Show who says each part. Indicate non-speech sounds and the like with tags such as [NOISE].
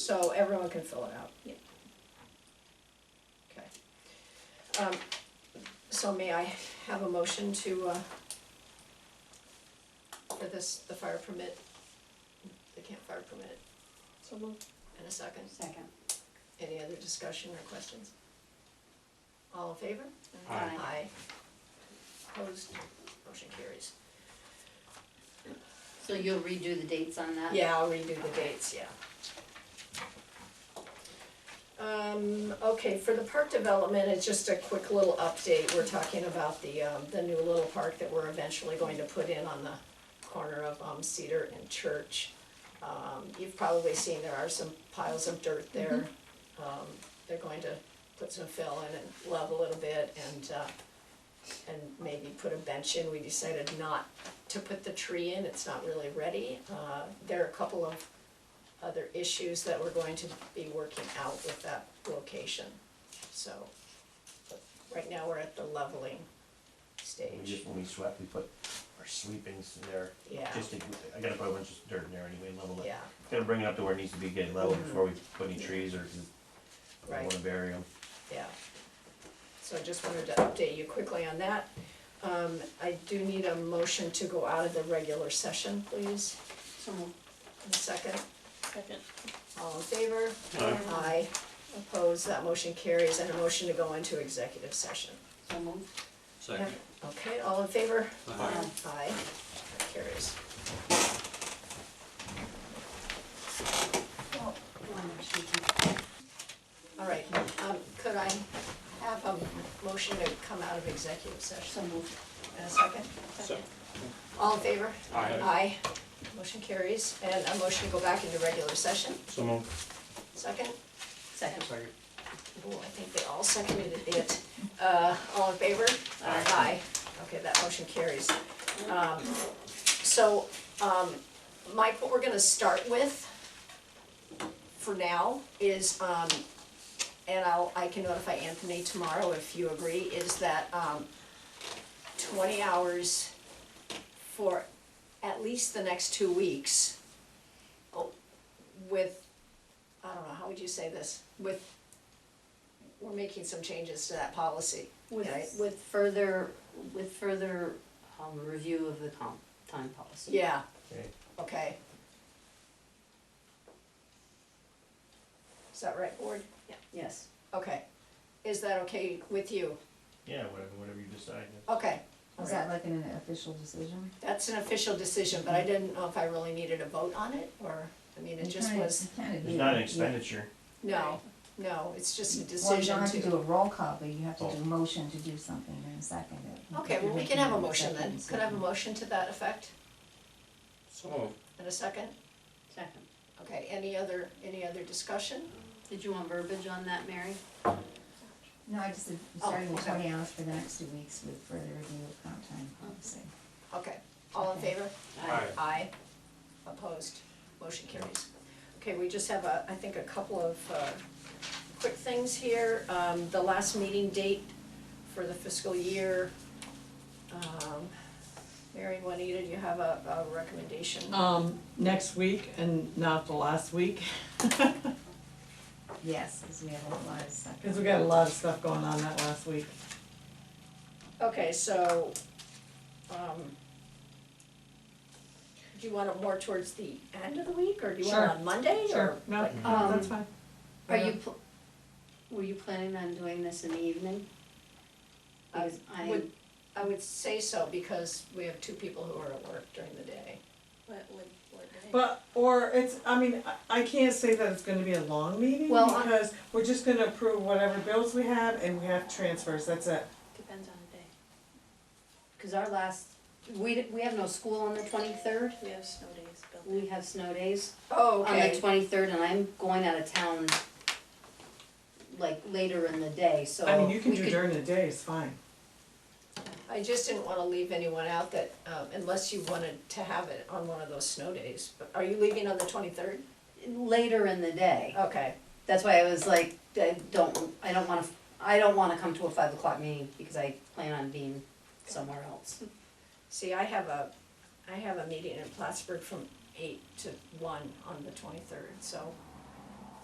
Speaker 1: so everyone can fill it out?
Speaker 2: Yep.
Speaker 1: Okay. Um, so may I have a motion to, uh, for this, the fire permit, the campfire permit,
Speaker 2: So moved.
Speaker 1: in a second?
Speaker 3: Second.
Speaker 1: Any other discussion or questions? All in favor?
Speaker 3: Aye.
Speaker 1: Aye. Opposed, motion carries.
Speaker 3: So you'll redo the dates on that?
Speaker 1: Yeah, I'll redo the dates, yeah. Um, okay, for the park development, it's just a quick little update, we're talking about the, um, the new little park that we're eventually going to put in on the corner of, um, Cedar and Church. Um, you've probably seen there are some piles of dirt there, um, they're going to put some fill in and level it a bit and, uh, and maybe put a bench in, we decided not to put the tree in, it's not really ready. Uh, There are a couple of other issues that we're going to be working out with that location, so. but Right now, we're at the leveling
Speaker 4: We
Speaker 1: stage,
Speaker 4: just, when we swept, we put our sweepings in there,
Speaker 1: yeah,
Speaker 4: just to, I gotta put a bunch of dirt in there anyway, level it.
Speaker 1: yeah,
Speaker 4: Gotta bring it up to where it needs to be getting level
Speaker 1: Mhm.
Speaker 4: before we put any trees or, we
Speaker 1: right.
Speaker 4: wanna bury them.
Speaker 1: Yeah. So I just wanted to update you quickly on that. Um, I do need a motion to go out of the regular session, please,
Speaker 3: So moved.
Speaker 1: in a second.
Speaker 2: Second.
Speaker 1: All in favor?
Speaker 4: Aye.
Speaker 1: Aye. Opposed, that motion carries, and a motion to go into executive session.
Speaker 3: So moved.
Speaker 5: Second.
Speaker 1: Okay, all in favor?
Speaker 5: Aye.
Speaker 1: Aye, that carries. All right, um, could I have a motion to come out of executive session
Speaker 3: So moved.
Speaker 1: in a second?
Speaker 5: Second.
Speaker 1: All in favor?
Speaker 5: Aye.
Speaker 1: Aye, motion carries, and a motion to go back into regular session,
Speaker 5: So moved.
Speaker 1: second?
Speaker 3: Second.
Speaker 5: Second.
Speaker 1: Oh, I think they all seconded it. Uh, all in favor?
Speaker 5: Aye.
Speaker 1: Okay, that motion carries. Um, so, um, Mike, what we're gonna start with for now is, um, and I'll, I can notify Anthony tomorrow if you agree, is that, um, twenty hours for at least the next two weeks. Oh, with, I don't know, how would you say this? With we're making some changes to that policy. Right.
Speaker 3: With, with further, with further, um, review of the comp, time policy.
Speaker 1: Yeah,
Speaker 4: Okay.
Speaker 1: okay. Is that right, board?
Speaker 3: Yes.
Speaker 1: Okay. Is that okay with you?
Speaker 4: Yeah, whatever, whatever you decide.
Speaker 1: Okay,
Speaker 6: Is that like an official decision?
Speaker 1: that's an official decision, but I didn't know if I really needed a vote on it, or, I mean, it just
Speaker 6: [LAUGHS]
Speaker 1: was,
Speaker 4: It's not an expenditure.
Speaker 1: no, no, it's just a
Speaker 6: Well, you
Speaker 1: decision
Speaker 6: don't have to do
Speaker 1: to.
Speaker 6: a roll call, but you have to
Speaker 4: Oh.
Speaker 6: do a motion to do something and second it.
Speaker 1: Okay, well, we can have a motion then. Could I have a motion to that effect
Speaker 5: So moved.
Speaker 1: in a second?
Speaker 3: Second.
Speaker 1: Okay, any other, any other discussion?
Speaker 3: Did you want verbiage on that, Mary?
Speaker 6: No, I just said,
Speaker 1: Oh,
Speaker 6: starting with
Speaker 1: okay.
Speaker 6: twenty hours for the next two weeks with further review of comp time policy.
Speaker 1: Okay, all in
Speaker 6: Okay.
Speaker 1: favor?
Speaker 3: Aye.
Speaker 1: Aye. Opposed, motion carries. Okay, we just have a, I think, a couple of uh, quick things here. Um, The last meeting date for the fiscal year. um, Mary Juanita, do you have a, a recommendation?
Speaker 7: Um, next week and not the last week, cause
Speaker 6: Yes, because we have a lot of stuff.
Speaker 7: we got a lot of stuff going on that last week.
Speaker 1: Okay, so, um, do you want it more towards the end of the week, or do you want it
Speaker 7: Sure.
Speaker 1: on Monday, or?
Speaker 7: No,
Speaker 1: like-
Speaker 7: that's fine.
Speaker 3: um, Are you, pl- were you planning on doing this in the evening?
Speaker 1: I
Speaker 3: Because I,
Speaker 1: would- I would say so, because we have two people who are at work during the day.
Speaker 2: What, what, what day?
Speaker 7: But, or it's, I mean, I, I can't say that it's gonna be a long meeting,
Speaker 3: Well, I-
Speaker 7: because we're just gonna approve whatever bills we have, and we have transfers, that's it.
Speaker 2: Depends on the
Speaker 3: cause our last, we, d- we have no school on the twenty-third,
Speaker 2: day. We have snow days built in.
Speaker 3: we have snow days.
Speaker 1: Oh,
Speaker 3: on the twenty-third, and I'm going out of town, like, later in the day, so.
Speaker 7: I mean, you can
Speaker 3: we
Speaker 7: do
Speaker 3: could-
Speaker 7: during the day, it's fine.
Speaker 1: I just didn't wanna leave anyone out that, um, unless you wanted to have it on one of those snow days, but are you leaving on the twenty-third?
Speaker 3: Later in the day,
Speaker 1: Okay,
Speaker 3: that's why I was like, I don't, I don't wanna, I don't wanna come to a five o'clock meeting, because I plan on being somewhere else.
Speaker 1: see, I have a, I have a meeting in Plattsburgh from eight to one on the twenty-third, so